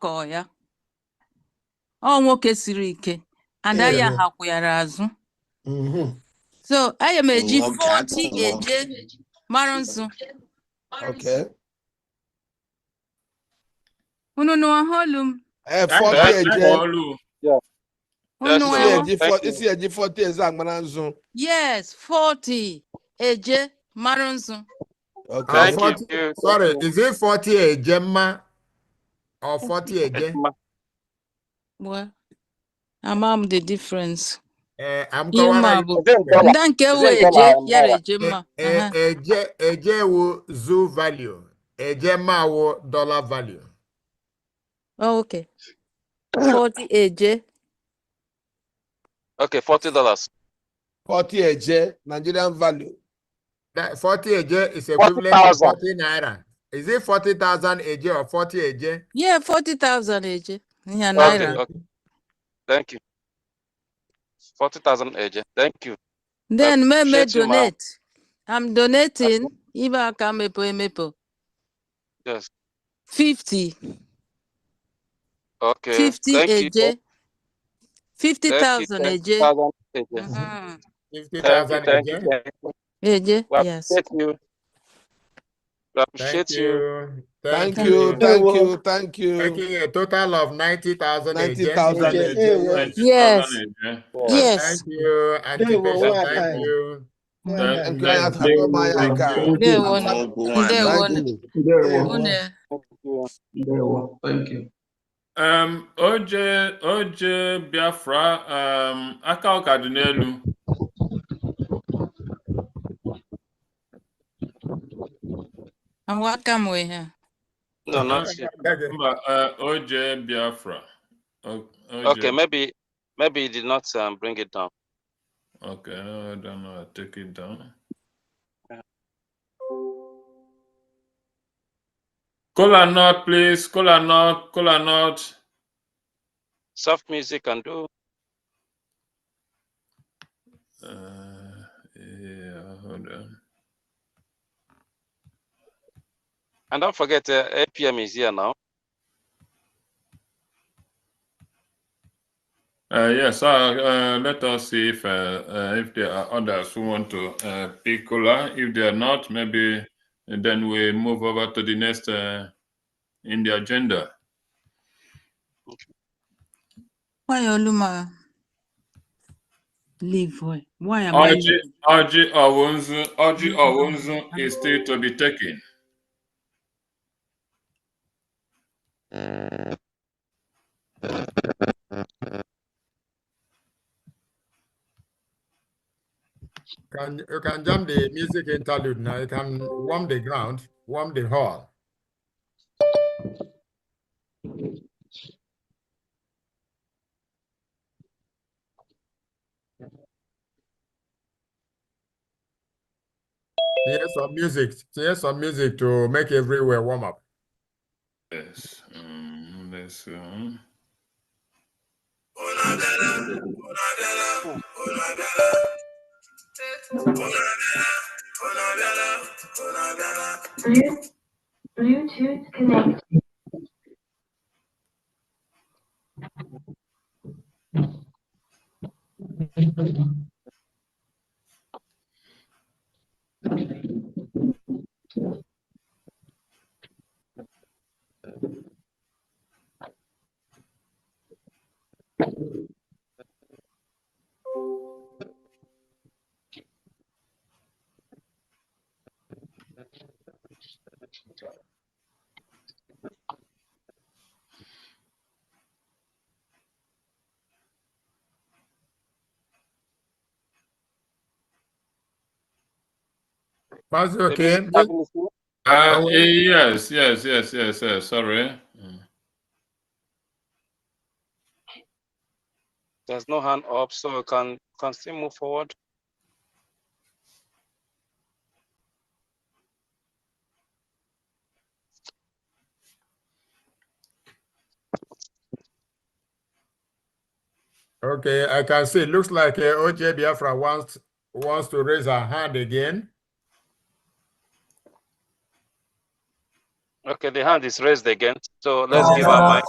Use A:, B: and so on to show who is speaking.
A: kọọ ya ọ nwoke siri ike ada ya
B: Ee.
A: hakwụyara azụ
B: Mhm.
A: so aga m eji
C: Nwoke
A: fọti
C: atụrụ.
A: eje mara nzu
B: Okay.
A: unu nụọ holu m
B: Eh,
D: That-
B: 40
D: that-
B: eje-
D: that Olu.
A: unu
D: That's
A: nụọ
B: isi
D: well.
B: eji
D: Thank
B: 40
D: you.
B: isi eji 40 eze agbara nzu.
A: yes fọti eje mara nzu
B: Okay.
D: Thank
E: Uh, 40
D: you.
E: Sorry, is it 40 a Gemma or 40 a Gem?
A: well ama m the difference
E: Uh, I'm going
A: Yuma bụ ndị nke wụ eje yara eje mma Aha.
E: A J will zoo value, a Gemma will dollar value.
A: Oh, okay. 40 eje
D: Okay, forty dollars.
B: 40 eje Nigerian value.
E: That 40 a J is equivalent to 40 naira. Is it 40,000 a J or 40 a J?
A: yeah 40,000 eje ya
D: Okay,
A: naira
D: okay. Thank you. Forty thousand AJ. Thank you.
A: then me me
D: shit you, ma.
A: donate i'm donating ibe aka mepe emepe
D: Yes.
A: 50
D: Okay.
A: 50
D: Thank you.
A: eje
D: Thank you.
A: 50,000
D: Thank
A: eje
D: thousand AJ.
A: Mhm.
D: Thank you.
E: 50,000 a
D: Thank you.
E: J?
D: Thank you.
A: eje
D: We
A: yes
D: appreciate you. We
E: Thank
D: appreciate you.
E: you.
B: Thank you, thank you, thank you.
E: Making a total of 90,000 a J.
B: 90,000 a J.
A: Yes.
E: Thank
A: yes
E: you, anticipation, thank you.
B: Thank you, I have to go buy a car.
A: ndewo ndewo
B: Thank you.
A: unu
F: Thank you.
D: Um, OJ, OJ Biafra, um, aka ọka dị n'elu.
A: aka m wee ha
C: No, not yet.
D: Mba, uh, OJ Biafra. O- OJ.
C: Okay, maybe, maybe you did not um, bring it down.
D: Okay, I don't know, I'll take it down. Cola nut, please, cola nut, cola nut.
C: Soft music can do.
D: Uh, yeah, hold on.
C: And don't forget, uh, APM is here now.
D: Uh, yes, uh, uh, let us see if, uh, uh, if there are others who want to, uh, pick cola. If they are not, maybe then we move over to the next, uh, in the agenda.
A: why oluma leave why why am i
D: Orji, Orji Owunzu, Orji Owunzu is still to be taken.
E: Can, you can jump the music interlude now, you can warm the ground, warm the hall. Here's some music, here's some music to make everywhere warm up.
D: Yes. Um, let's. Um,
G: Bluetooth Bluetooth connected.
E: That's
C: The
E: okay.
C: music cabin is here.
D: uh,
E: will-
D: eh, yes, yes, yes, yes, yes. Sorry. Mm.
C: There's no hand up, so we can, can still move forward.
E: Okay, I can see, looks like uh, OJ Biafra wants, wants to raise her hand again.
C: Okay, the hand is raised again, so let's give her mic.